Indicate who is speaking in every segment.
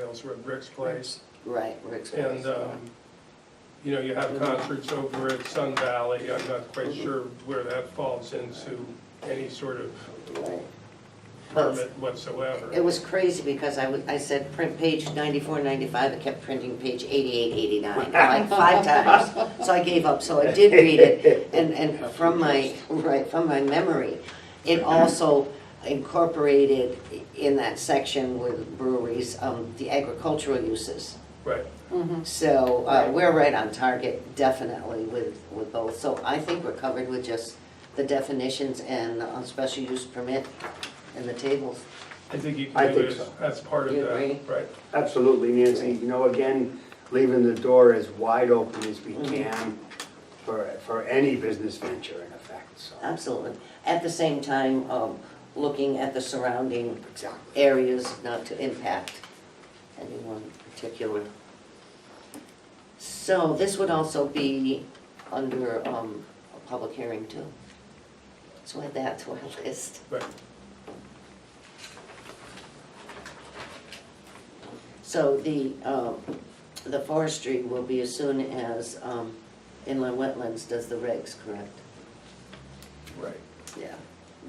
Speaker 1: Downs, we're at Rick's place.
Speaker 2: Right, Rick's.
Speaker 1: And, um, you know, you have concerts over at Sun Valley. I'm not quite sure where that falls into any sort of
Speaker 2: Right.
Speaker 1: permit whatsoever.
Speaker 2: It was crazy because I, w- I said print page ninety-four, ninety-five, it kept printing page eighty-eight, eighty-nine, like five times. So I gave up, so I did read it, and, and from my, right, from my memory, it also incorporated in that section with breweries, um, the agricultural uses.
Speaker 1: Right.
Speaker 2: So, uh, we're right on target, definitely, with, with both, so I think we're covered with just the definitions and on special use permit and the tables.
Speaker 1: I think you
Speaker 3: I
Speaker 1: can do
Speaker 3: think
Speaker 1: it as-
Speaker 3: so.
Speaker 1: as part of
Speaker 2: You
Speaker 1: that,
Speaker 2: agree?
Speaker 1: right?
Speaker 3: Absolutely, Nancy, you know, again, leaving the door as wide open as we
Speaker 2: Mm-hmm.
Speaker 3: can for, for any business venture in effect, so.
Speaker 2: Absolutely. At the same time, um, looking at the surrounding
Speaker 3: Exactly.
Speaker 2: areas not to impact anyone in particular. So this would also be under, um, a public hearing too. So add that to our list.
Speaker 1: Right.
Speaker 2: So the, um, the forestry will be as soon as, um, inland wetlands does the regs, correct?
Speaker 1: Right.
Speaker 2: Yeah.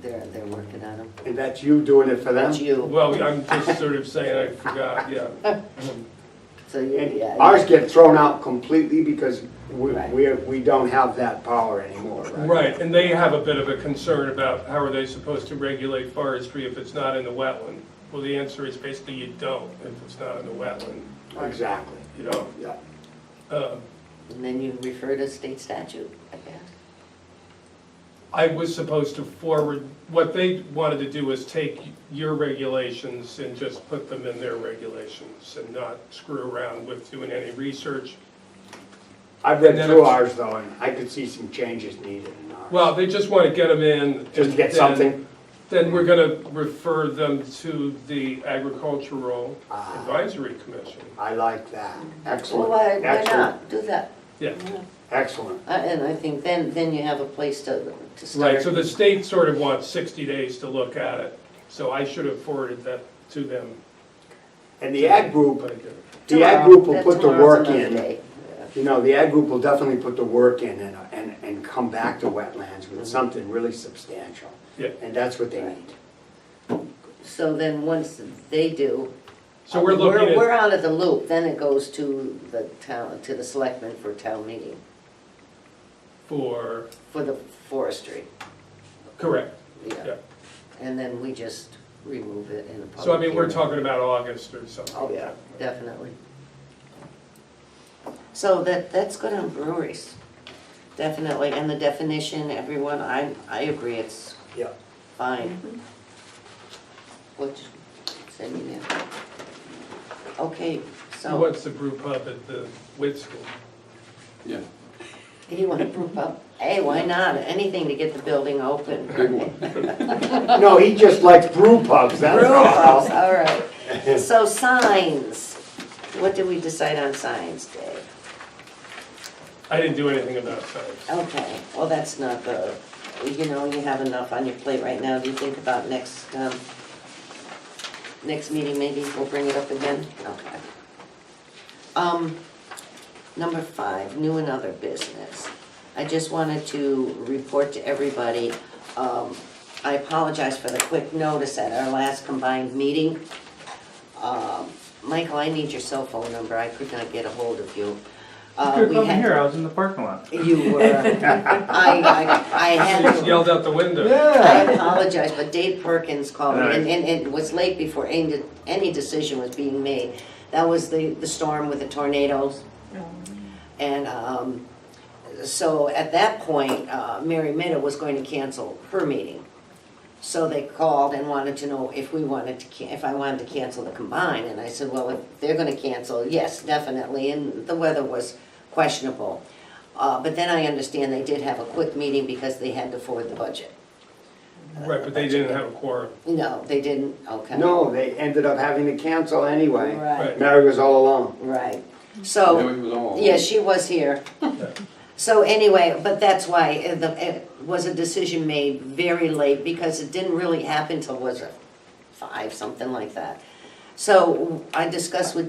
Speaker 2: They're, they're working on them.
Speaker 3: And that's you doing it for them?
Speaker 2: That's you,
Speaker 1: Well, I'm just sort of saying I forgot, yeah.
Speaker 2: so you,
Speaker 3: And
Speaker 2: yeah.
Speaker 3: ours get thrown out completely because we,
Speaker 2: Right.
Speaker 3: we, we don't have that power anymore, right?
Speaker 1: Right, and they have a bit of a concern about how are they supposed to regulate forestry if it's not in the wetland? Well, the answer is basically you don't if it's not in the wetland,
Speaker 3: Exactly,
Speaker 1: you know?
Speaker 3: yeah.
Speaker 1: Um,
Speaker 2: And then you refer to state statute, I guess.
Speaker 1: I was supposed to forward, what they wanted to do was take your regulations and just put them in their regulations and not screw around with doing any research.
Speaker 3: I've
Speaker 1: And
Speaker 3: read
Speaker 1: then
Speaker 3: through
Speaker 1: it's-
Speaker 3: ours though, and I could see some changes needed uh, in ours.
Speaker 1: Well, they just want to get them in.
Speaker 3: Just to get
Speaker 1: and then-
Speaker 3: something.
Speaker 1: Then we're going to refer them to the Agricultural
Speaker 3: Ah.
Speaker 1: Advisory Commission.
Speaker 3: I like that,
Speaker 2: Well,
Speaker 3: excellent,
Speaker 2: why, why
Speaker 3: excellent,
Speaker 2: not? Do that.
Speaker 1: Yeah,
Speaker 3: excellent.
Speaker 2: Uh, And I think then, then you have a place to, to start.
Speaker 1: right, so the state sort of wants 60 days to look at it, so I should have forwarded that to them.
Speaker 3: And the ag group,
Speaker 1: but I didn't.
Speaker 3: The ag
Speaker 2: Tomorrow.
Speaker 3: group will
Speaker 2: That
Speaker 3: put the
Speaker 2: tomorrow's
Speaker 3: work
Speaker 2: another
Speaker 3: in.
Speaker 2: day. Yeah.
Speaker 3: You know, the ag group will definitely put the work in and, uh, and, and come back to wetlands with something really substantial.
Speaker 1: Yeah.
Speaker 3: And that's what they need.
Speaker 2: So then, once they do.
Speaker 1: So
Speaker 3: Uh,
Speaker 1: we're looking
Speaker 2: We're
Speaker 1: at,
Speaker 2: out of the loop, then it goes to the town, to the selectmen for town meeting,
Speaker 1: for,
Speaker 2: for the forestry,
Speaker 1: correct,
Speaker 2: yeah.
Speaker 1: yeah.
Speaker 2: And then we just remove it in a public.
Speaker 1: So I mean, we're
Speaker 2: hearing.
Speaker 1: talking about August or something.
Speaker 2: Oh, yeah, definitely. So that, that's good on breweries, definitely, and the definition, everyone, I, I agree, it's
Speaker 3: Yeah.
Speaker 2: fine. What, send me that. Okay,
Speaker 1: Who
Speaker 2: so,
Speaker 1: wants to brew pub at the Witt School?
Speaker 4: Yeah,
Speaker 2: you wanna prove up, hey, why not, anything to get the building open.
Speaker 4: big one.
Speaker 3: No, he just likes brew pubs, that's
Speaker 2: Brew pubs,
Speaker 3: all.
Speaker 2: all right. So signs, what did we decide on signs, Dave?
Speaker 1: I didn't do anything about signs.
Speaker 2: Okay, well, that's not the, you know, you have enough on your plate right now, do you think about next, um, next meeting, maybe we'll bring it up again? Okay. Um, number five, new and other business. I just wanted to report to everybody, um, I apologize for the quick notice at our last combined meeting. Um, Michael, I need your cell phone number, I could not get a hold of you. Uh,
Speaker 5: Could
Speaker 2: we
Speaker 5: come
Speaker 2: had-
Speaker 5: here. I was in the parking lot.
Speaker 2: you were, I, I, I
Speaker 1: I
Speaker 2: had,
Speaker 1: just
Speaker 2: to-
Speaker 1: yelled out the window.
Speaker 2: I apologize, but Dave Perkins called me,
Speaker 5: All right.
Speaker 2: and, and it was late before any, any decision was being made. That was the, the storm with the tornadoes. And, um, so at that point, uh, Mary Minna was going to cancel her meeting. So they called and wanted to know if we wanted to, can- if I wanted to cancel the combine, and I said, well, if they're gonna cancel, yes, definitely, and the weather was questionable. Uh, but then I understand they did have a quick meeting because they had to forward the budget.
Speaker 1: Right, but they didn't have a quorum.
Speaker 2: No, they didn't, okay.
Speaker 3: No, they ended up having to cancel anyway.
Speaker 2: Right,
Speaker 3: Mary was all alone.
Speaker 2: right,
Speaker 4: Yeah,
Speaker 2: so,
Speaker 4: we Mm-hmm. was all-
Speaker 2: yeah, she was here. So anyway, but that's why uh, the, it was a decision made very late because it didn't really happen till was it five, something like that. So I discussed with